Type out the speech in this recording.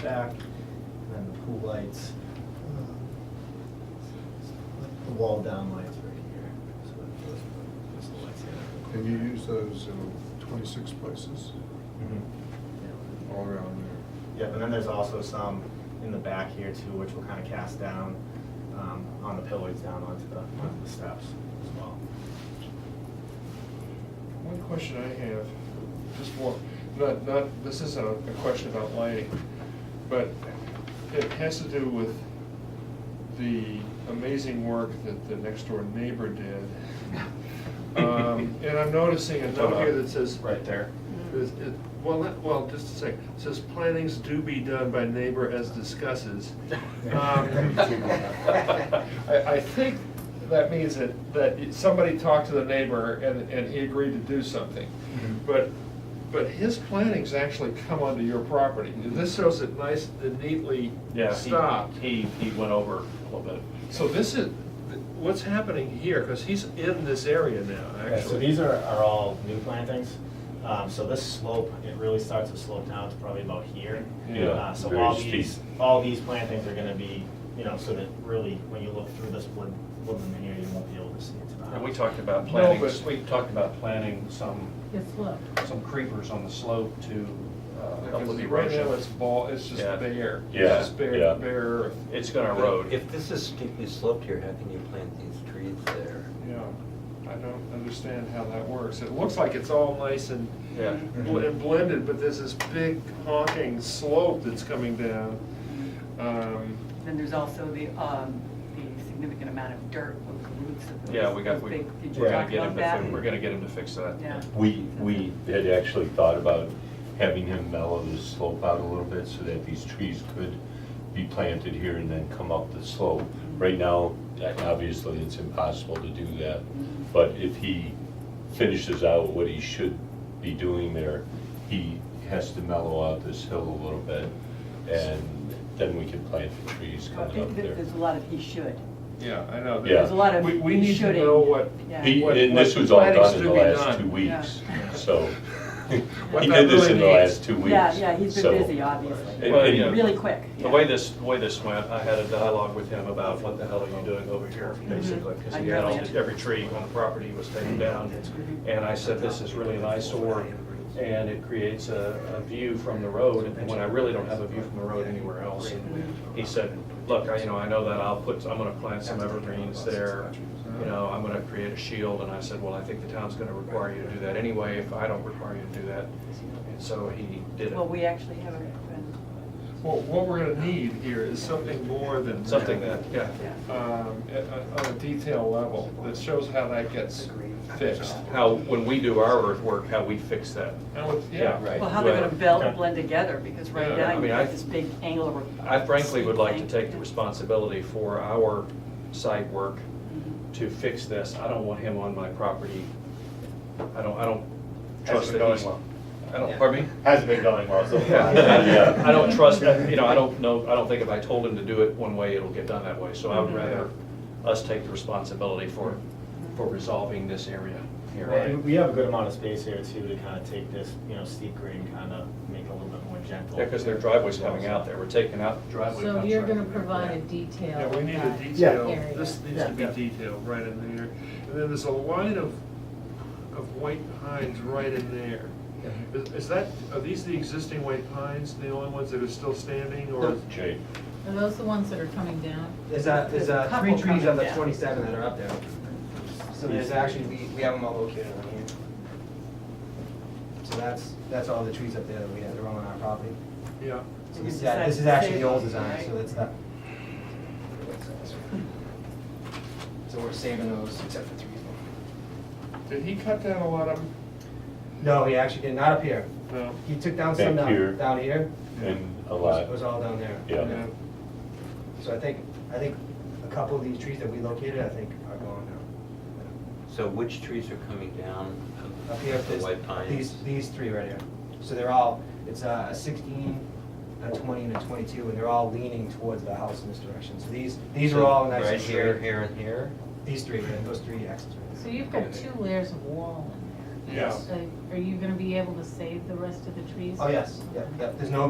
shack, and then the pool lights. uh, The wall down lights right here, so that those, those are the lights here. And you use those in twenty-six places Mhm. all around there. Yep, and then there's also some in the back here too, which will kind of cast down um, on the pillars down onto the, onto the steps as well. One question I have, just one, not, not, this isn't a a question about lighting, but it has to do with the amazing work that the next door neighbor did. Um, And I'm noticing a note here that says. Right there. Is- it- Well, not- well, just a second, It says plannings do be done by neighbor as discusses. Um, I, I think that means that, that somebody talked to the neighbor and, and he agreed to do something. Mm-hmm. Mhm. But, but his plantings actually come onto your property. This shows it nice, and neatly Yeah, he- stopped. He, he went over a little bit. So this is, what's happening here, because he's in this area now, Yeah, actually. so these are, are all new plantings. Um, So this slope, it really starts to slope down to probably about here. Yeah, Uh, So very all steep. these, all these plantings are gonna be, you know, so that really, when you look through this wood, woodland here, you won't be able to see it to the house. And we talked about No, planting, but- we talked about planting some, It's low. some creepers on the slope to uh, help Because with right now erosion. it's ball, it's just Yeah. bare. It's Yeah, just bare, yeah. bare earth. It's gonna erode. If this is steeply sloped here, how can you plant these trees there? Yeah, I don't understand how that works. It looks like it's all nice and Yeah. bl- and blended, but there's this big honking slope that's coming down. Um, Then there's also the, um, the significant amount of dirt on the roots of those. Yeah, we got, those we, big- Did you we're gonna talk get about him to, fi- that? we're gonna get him to fix that. Yeah. We, we had actually thought about having him mellow the slope out a little bit so that these trees could be planted here and then come up the slope. Right now, that- obviously, it's impossible to do that, Mm-hmm. but if he finishes out what he should be doing there, he has to mellow out this hill a little bit, and then we can plant the trees I coming think up that there. There's a lot of he should. Yeah, I know. Yeah. There's a lot of We, we need to shooting. know what. Yeah. He, what- and what this was all planning's done in to the be last done. two weeks, Yeah. so. What He that did this really in the needs. last two weeks. Yeah, yeah, he's so- been busy, obviously. Well, yeah. Really quick. The way this, the way this went, I had a dialogue with him about what the hell are you doing over here, Mhm. basically, because he had all, every tree on the property was taken down. And I said, this is really an eyesore, and it creates a, a view from the road, when I really don't have a view from the road anywhere else. And He said, look, I, you know, I know that I'll put, I'm gonna plant some evergreens there, you know, I'm gonna create a shield, and I said, well, I think the town's gonna require you to do that anyway, if I don't require you to do that. And so he did it. Well, we actually have a, an- Well, what we're gonna need here is something more than. Something that, yeah. Um, at- at- on a detail level, that shows how that gets fixed. how, when we do our earthwork, how we fix that. And with- yeah. Yeah, right. well, how they're gonna Well, bel- blend together, because right Yeah, I now mean, you've I- got this big angle. of- I frankly would like to take the Yeah. responsibility for our site work Mm-hmm. to fix this. I don't want him on my property. I don't, I don't trust that he's. I don't, pardon me? Hasn't been going well so far. Yeah. I don't trust, that, you know, I don't know, I don't think if I told him to do it one way, it'll get done that way. So I Mm-hmm. would rather us take the responsibility for, for resolving this area here. And we have a good amount of space here too, to kind of take this, you know, steep grade and kind of make it a little bit more gentle. Yeah, because their driveway's coming out there. We're taking out the driveway. So comes you're right gonna through there. provide a Yeah, detail. we need a guide. detail, Yeah. this needs to be detailed right in there. And then there's a line of, of white pines right in there. Is is that, are these the existing white pines, the only ones that are still standing, or? Jay, Are those the ones that are coming down? There's a, there's There's a a three trees couple coming on the down. twenty-seven that are up there. So there's actually, we, we have them all located on here. So that's, that's all the trees up there that we have, they're all on our property. Yeah. So And this, you is a- this decided is to actually save the old those, design, right? so that's that. So we're saving those except for three of them. Did he cut down a lot of them? No, he actually did, not up here. No. He took down some Back here. down, down here. and a It was- lot. It was all down there. Yeah. Yeah. So I think, I think a couple of these trees that we located, I think are gone now. So which trees are coming down of- Up here, of the this- white pines? these, these three right here. So they're all, it's uh, a sixteen, a twenty, and a twenty-two, and they're all leaning towards the house in this direction. So these, these are all nice and Right here, straight. here, and here? These three, right, those three axes right So there. you've got two layers of wall in there. Yeah. So Are you gonna be able to save the rest of the trees? Oh, yes, yeah, yeah, there's no